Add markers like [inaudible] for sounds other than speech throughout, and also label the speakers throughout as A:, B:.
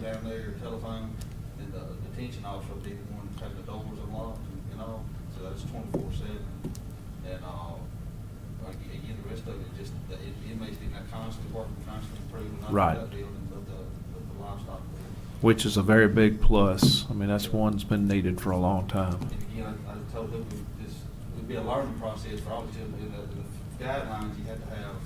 A: down there or telephone, and the detention officer will be the one that's having the doors unlocked and- and all, so that's twenty-four seven. And, uh, like, again, the rest of it, just, the in- inmates being that constant working, constant improving, not
B: Right.
A: just that building, but the, but the livestock building.
B: which is a very big plus. I mean, that's one's been needed for a long time.
A: And again, I, I told him, this would be a learning process for all the children, in the, in the guidelines, you had to have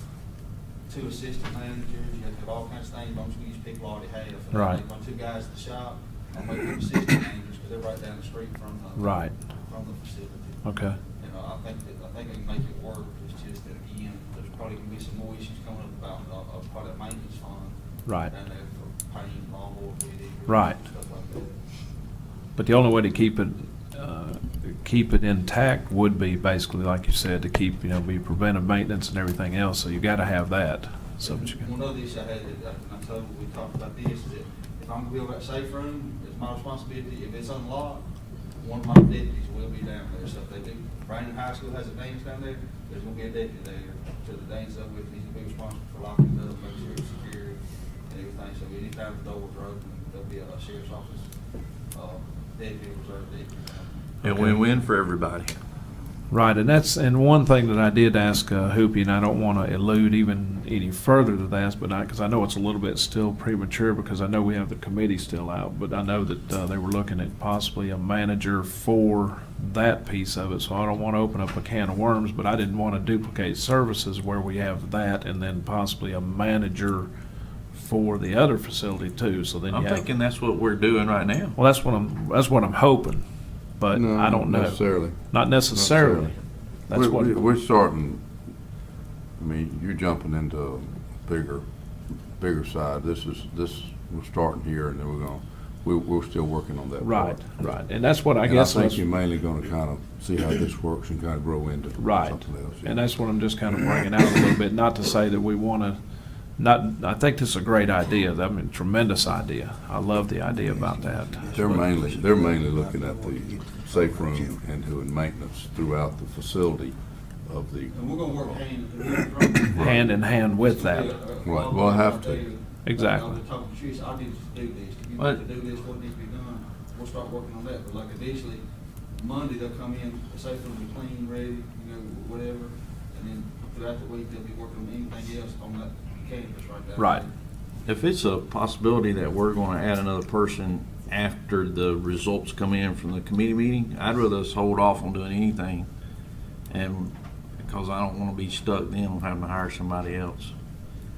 A: two assistant managers, you had to have all kinds of things, most of these people already have. And I
B: Right.
A: think My two guys at the shop, I make them assistant managers, because they're right down the street from the.
B: Right.
A: From the facility.
B: Okay.
A: You know, I think that, I think they can make it work, it's just that again, there's probably gonna be some more issues coming up about, uh, uh, part of the maintenance fund.
B: Right.
A: And they're paying lawnmower, weed eater,
B: Right.
A: Stuff like that.
B: But the only way to keep it, uh, keep it intact would be basically, like you said, to keep, you know, be preventive maintenance and everything else, so you gotta have that. So, but you
A: One
B: can-
A: other issue I had, that I- I told, we talked about this, is that if I'm gonna build that safe room, it's my responsibility, if it's unlocked, one of my deputies will be down there, so if they do, Brandon High School has a dance down there, there's gonna be a deputy there, so the dance up with, he's gonna be responsible for locking it up, make sure it's secure and everything, so anytime the doors are open, there'll be a sheriff's office, uh, deputy, reserve deputy.
C: And win-win for everybody.
B: Right, and that's, and one thing that I did ask uh, Hoopy, and I don't wanna elude even any further to that, but I, cause I know it's a little bit still premature, because I know we have the committee still out, but I know that, uh, they were looking at possibly a manager for that piece of it, so I don't wanna open up a can of worms, but I didn't wanna duplicate services where we have that, and then possibly a manager for the other facility too, so then you
C: I'm
B: have.
C: thinking that's what we're doing right now.
B: Well, that's what I'm, that's what I'm hoping, but
D: No,
B: I don't know.
D: Not necessarily.
B: Not necessarily.
D: Necessarily.
B: That's
D: We're-
B: what.
D: we're- We're starting, I mean, you're jumping into bigger, bigger side. This is, this, we're starting here and then we're gonna, we, we're still working on that
B: Right,
D: part.
B: right, and that's what I
D: And I
B: guess,
D: think
B: was-
D: you're mainly gonna kind of see how this works and kind of grow into
B: Right.
D: something else. yeah.
B: and that's what I'm just kind of bringing out a little bit, not to say that we want to, not, I think this is a great idea, I mean, tremendous idea. I love the idea about that.
D: They're mainly, they're mainly looking at the safe room and doing maintenance throughout the facility of the,
A: And we're gonna work hand.
B: [coughs] Hand in hand with that,
D: Right, we'll have to.
B: Exactly.
A: I was talking to Trish, I need to do this, if you
C: What?
A: want to do this, what needs to be done, we'll start working on that, but like initially, Monday they'll come in, say it'll be clean, ready, you know, whatever, and then throughout the week, they'll be working on anything else on that canvas right there.
B: Right.
C: If it's a possibility that we're gonna add another person after the results come in from the committee meeting, I'd rather us hold off on doing anything. And, because I don't wanna be stuck then on having to hire somebody else,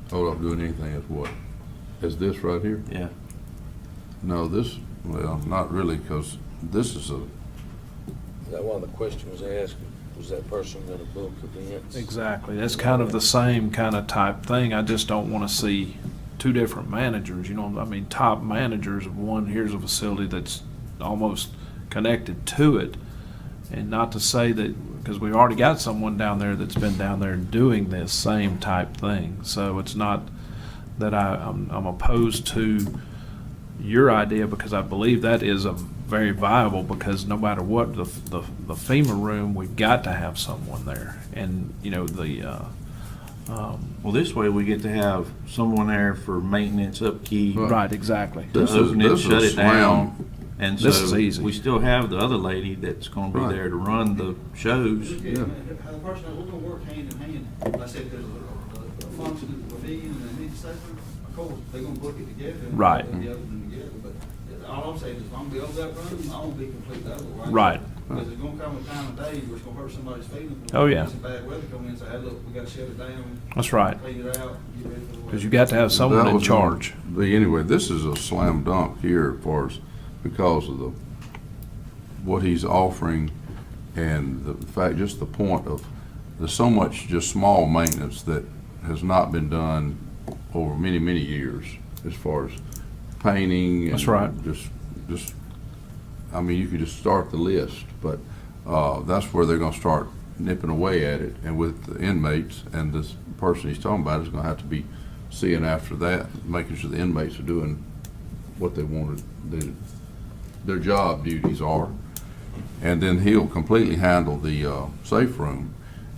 D: hold up doing anything as what? As this right here?
C: yeah.
D: No, this, well, not really, because this is a,
E: That one of the questions asked, was that person gonna book events?
B: exactly, that's kind of the same kind of type thing, I just don't want to see two different managers, you know, I mean, top managers of one, here's a facility that's almost connected to it, and not to say that, because we've already got someone down there that's been down there doing this same type thing, so it's not that I, I'm, I'm opposed to your idea, because I believe that is a very viable, because no matter what, the, the the FEMA room, we've got to have someone there, and, you know, the, uh, um,
C: Well, this way we get to have someone there for maintenance, upkeep,
B: right, exactly.
C: to
D: This is-
C: open it,
D: this is
C: shut it
D: slam.
C: down. And
B: This is
C: so,
B: easy.
C: we still have the other lady that's gonna be
D: Right.
C: there to run the shows.
A: Look at, how the person, we're gonna work hand in hand, like I said, there's a, a, a function of the pavilion and they need safer, of course, they're gonna book it together. and
B: Right.
A: put The other one together, but all I'm saying is, if I'm building that room, I won't be completely over, right?
B: Right.
A: Because there's gonna come a time of day where it's gonna hurt somebody's feelings.
B: Oh, yeah.
A: Some bad weather coming in, say, hey, look, we gotta shut it down,
B: That's right,
A: clean it out, get ready for the.
B: because you've got to have someone
D: That
B: in
D: was gonna
B: charge.
D: But anyway, this is a slam dunk here as far as, because of the, what he's offering and the fact, just the point of, there's so much just small maintenance that has not been done over many, many years as far as painting. and
B: That's right.
D: Just, just, I mean, you could just start the list, but, uh, that's where they're gonna start nipping away at it. And with the inmates and this person he's talking about is gonna have to be seeing after that, making sure the inmates are doing what they wanted, their, their job duties are. And then he'll completely handle the, uh, safe room.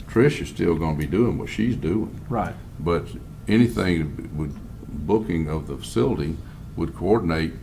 D: Trish is still gonna be doing what she's doing,
B: Right,
D: but anything with booking of the facility, would coordinate